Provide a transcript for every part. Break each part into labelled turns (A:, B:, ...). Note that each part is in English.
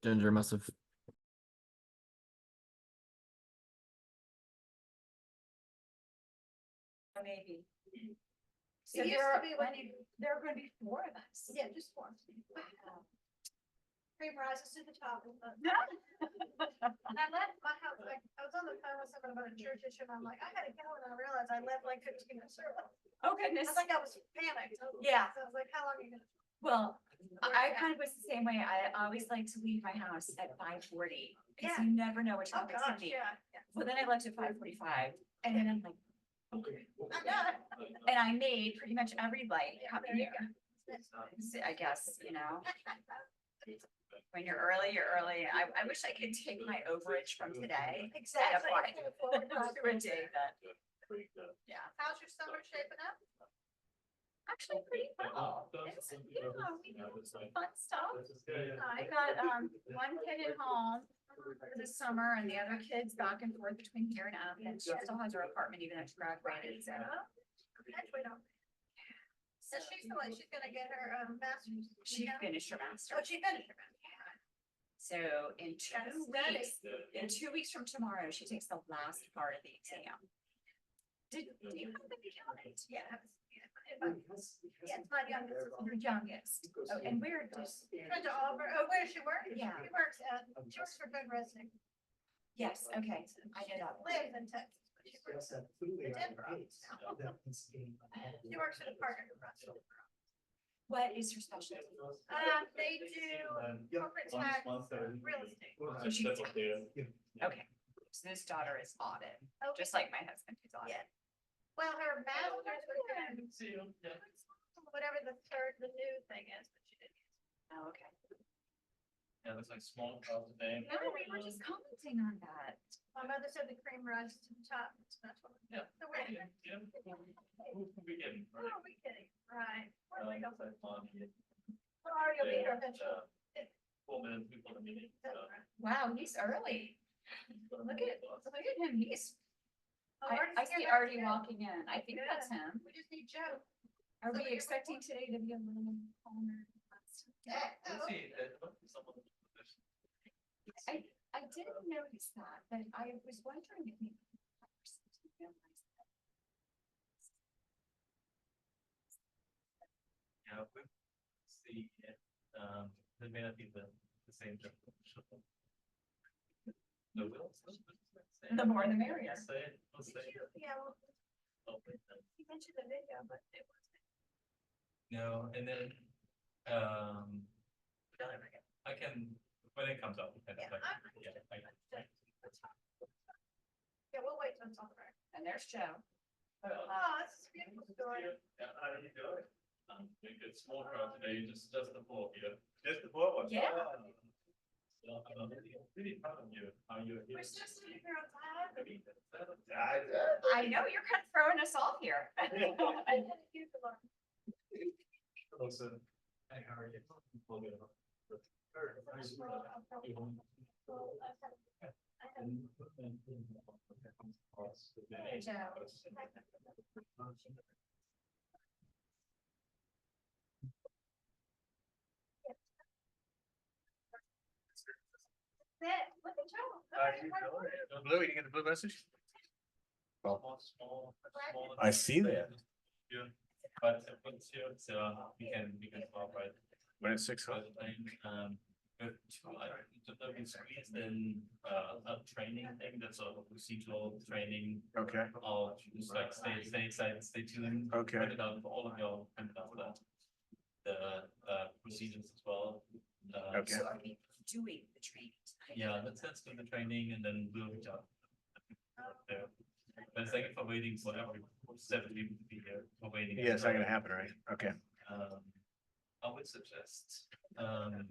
A: Ginger must have.
B: Maybe.
C: It
B: So
C: used
B: there
C: to
B: are,
C: be when you,
B: there are gonna be four of us.
C: yeah, just one. Cream rises to the top. and the- And I left my house, like, I was on the phone with someone about a church issue, and I'm like, I gotta go, and I realized I left like fifteen minutes early.
B: Oh,
C: I
B: goodness.
C: was like, I was panicked.
B: Yeah.
C: So I was like, how long are you gonna?
B: Well,
C: Or
B: I
C: yeah.
B: kind of was the same way. I always like to leave my house at five forty. Cause
C: Yeah.
B: you never know which
C: Oh,
B: topic's gonna
C: gosh,
B: be.
C: yeah. yeah.
B: Well, then I left at five forty-five and then I'm like,
C: I know.
B: and I made pretty much every light
C: Yeah,
B: coming
C: there you
B: here.
C: That's fine.
B: So I guess, you know, when you're early, you're early. I, I wish I could take my overage from today.
C: Exactly.
B: why.
C: Put it forward,
B: Not for a
C: forward.
B: day, but yeah,
C: How's your summer shaping up?
B: actually pretty well. It's, you know, we did some fun stuff. I got, um, one kid at home for the summer and the other kid's back and forth between here and Athens. She still has her apartment even after graduating, so.
C: Actually, no. So she's the one, she's gonna get her, um, master's.
B: She
C: Yeah.
B: finished her master.
C: Oh, she finished her
B: So in
C: That's
B: two
C: that
B: weeks, in two weeks from tomorrow, she takes the last part of the exam. Did, do you have the calendar?
C: master's. Yeah. Yeah, it's my youngest.
B: Your youngest. Oh, and we're just,
C: Went to Auburn. Oh, where does she work?
B: Yeah.
C: She works at, she works for Good Resident.
B: yes, okay, I know that.
C: Lives in Texas. but She works she works at a partner. restaurant.
B: What is her specialty?
C: Um, they do corporate
D: Once-
C: tax,
D: once they're-
C: real estate.
B: So she gets
D: That's what they-
B: Okay, so this daughter is audit,
C: Oh,
B: just like my husband is audit.
C: Yeah. Well, her master's was in whatever the third, the new thing is, but she didn't.
B: Oh, okay.
D: Yeah, looks like small clouds today.
B: No, we were just commenting on that.
C: My mother said the cream rises to the top. It's not what.
D: Yeah.
C: So we're,
D: Yeah, yeah. Who can we get?
C: what are we kidding? Right.
B: Oh,
C: We're
D: Um,
C: like,
D: it's like long, yeah.
C: Ari will be here
D: Yeah,
C: eventually.
D: uh, Four minutes before the meeting.
C: That's
D: so-
C: right.
B: Wow, he's early. Look at, look at him, he's,
C: Oh,
B: I,
C: Artie's
B: I
C: here
B: see
C: now,
B: Artie
C: too.
B: walking in, I think that's him.
C: We just need Joe.
B: Are
C: So
B: we
C: you're-
B: expecting today to be a little calmer?
D: Let's see, uh, look, someone-
B: I, I didn't notice that, but I was wondering if maybe. that person didn't realize that.
D: Yeah, we see, if, um, they may not be the, the same. definition. No, we'll, we'll- we'll say it.
B: The more the merrier.
D: We'll Say it, we'll
C: Did
D: say
C: you,
D: it.
C: yeah, well,
D: Oh, wait, no.
C: he mentioned the video, but it was.
D: No, and then, um. I can, when it comes up. I can-
C: Yeah,
D: I can-
C: I'm-
D: yeah, I can- I can-
C: Yeah, we'll wait till it's over.
B: And there's Joe.
C: Oh, this is a beautiful story.
D: Yeah, how do you do it? Um, we get small crowd today, just, just the four of you. Just the four?
B: us? Yeah.
D: So I'm really, really proud of you, how you're
C: We're
D: here.
C: just sitting here outside.
D: I mean, I,
B: I know, you're kind of throwing us off here.
C: I had a huge alarm.
D: also, hey, how are you? Well, good.
C: I'll probably- I'll probably- well, I've had- I had-
B: Hey, Joe.
C: That, look at Joe.
D: Blue, you get the blue message?
E: I see that.
D: Yeah, but but still, so we can, we can uh, talk about.
E: When it's six
D: But then, um, but two, I, the the screens then, uh, a training thing, that's a procedural training. um, uh,
E: okay,
D: Or just like stay, stay, stay, stay tuned.
E: okay.
D: Put it out for all of your, and all that. The, uh, procedures as well. Uh,
E: Okay.
B: So are we doing the training? tonight?
D: Yeah, let's, let's do the training and then we'll reach out. There. But thank you for waiting for every, for seven people to be here, for waiting.
E: Yeah, it's not gonna happen, right? Okay,
D: Um, I would suggest, um,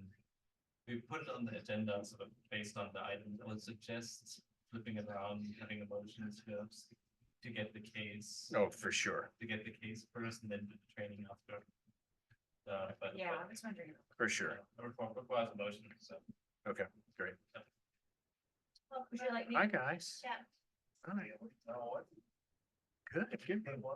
D: we put it on the agenda sort of based on the items. I would suggest flipping it around, having a motion to, to get the case.
E: oh, for sure,
D: To get the case first and then do the training after. Uh, but- but.
B: Yeah, I was wondering.
E: for sure.
D: It requires- requires a motion, so.
E: Okay, great.
B: Would you like me?
E: Hi, guys.
C: Yeah.
E: Hi,
D: Oh, what?
E: good, good.